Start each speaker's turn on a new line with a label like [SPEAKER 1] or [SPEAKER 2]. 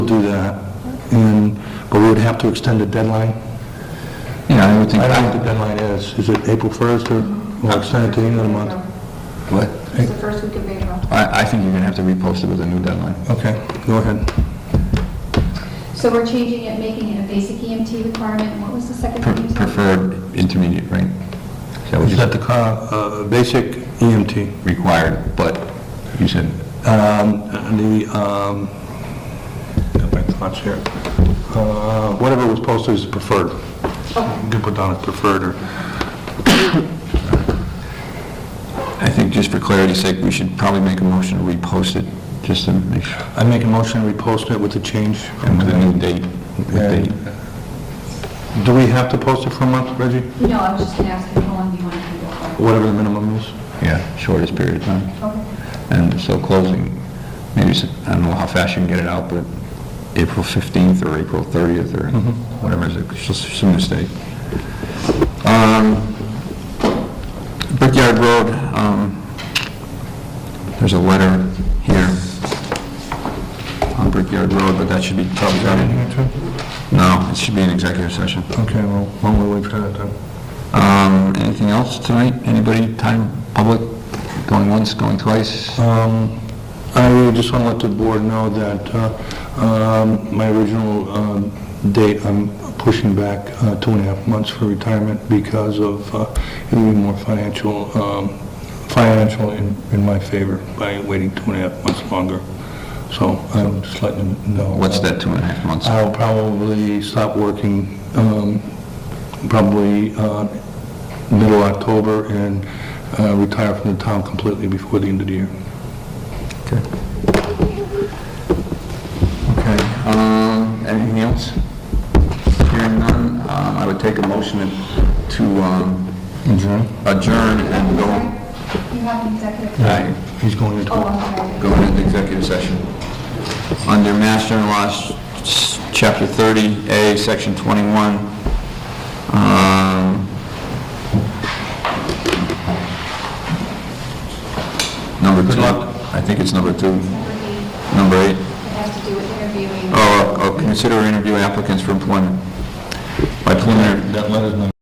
[SPEAKER 1] do that, and, but we would have to extend the deadline.
[SPEAKER 2] Yeah, I would think,
[SPEAKER 1] I don't know what the deadline is, is it April 1st, or we'll extend it to the end of the month?
[SPEAKER 2] what?
[SPEAKER 1] Hey.
[SPEAKER 3] It's the first week of April.
[SPEAKER 2] I, I think you're gonna have to repost it with a new deadline.
[SPEAKER 1] Okay, go ahead.
[SPEAKER 3] So we're changing it, making it a basic EMT requirement, what was the second
[SPEAKER 2] Pre-
[SPEAKER 3] one you said?
[SPEAKER 2] Preferred intermediate, right? Is that what
[SPEAKER 1] Is
[SPEAKER 2] you
[SPEAKER 1] that
[SPEAKER 2] said?
[SPEAKER 1] the car, uh, basic EMT?
[SPEAKER 2] Required, but you said,
[SPEAKER 1] Um, The, um, got my thoughts here. Uh, Whatever was posted is preferred. You can put down as preferred, or,
[SPEAKER 2] I think just for clarity's sake, we should probably make a motion to repost it, just to make sure,
[SPEAKER 1] I make a motion to repost it with the change.
[SPEAKER 2] and with a new date, with
[SPEAKER 1] And-
[SPEAKER 2] date.
[SPEAKER 1] Do we have to post it for a month, Reggie?
[SPEAKER 3] No, I was just gonna ask you how long you want to do it
[SPEAKER 1] Whatever the minimum is?
[SPEAKER 2] Yeah, shortest period of time.
[SPEAKER 3] for. Okay.
[SPEAKER 2] And so closing, maybe, s- I don't know how fast you can get it out, but April 15th or April 30th or whatever it is, it's just some mistake. Um, Brickyard Road, um, there's a letter here on Brickyard Road, but that should be probably, no, it should be an executive session.
[SPEAKER 1] Okay, well, why don't we wait for that then?
[SPEAKER 2] Um, Anything else tonight? Anybody, time, public, going once, going twice?
[SPEAKER 1] Um, I really just want to let the board know that uh, um, my original um, date, I'm pushing back uh, two and a half months for retirement because of uh, it would be more financial, um, financial in in my favor by waiting two and a half months longer. So I'm just letting them know.
[SPEAKER 2] What's that, two and a half months?
[SPEAKER 1] I'll probably stop working um, probably uh, middle October and uh, retire from the town completely before the end of the year.
[SPEAKER 2] Okay. Okay, um, anything else? Hearing none, um, I would take a motion to, um,
[SPEAKER 1] Adjourn?
[SPEAKER 2] adjourn and go,
[SPEAKER 3] You have an executive.
[SPEAKER 2] Aye.
[SPEAKER 1] He's going into...
[SPEAKER 3] Oh, I'm sorry.
[SPEAKER 2] go into executive session. Under Mass General Laws, s- Chapter 30A, Section 21, um, number two. I think it's number two,
[SPEAKER 3] Number eight,
[SPEAKER 2] number eight.
[SPEAKER 3] It has to do with
[SPEAKER 1] Oh,
[SPEAKER 3] interviewing.
[SPEAKER 2] or, or consider interview applicants for employment by preliminary,
[SPEAKER 1] That letter's not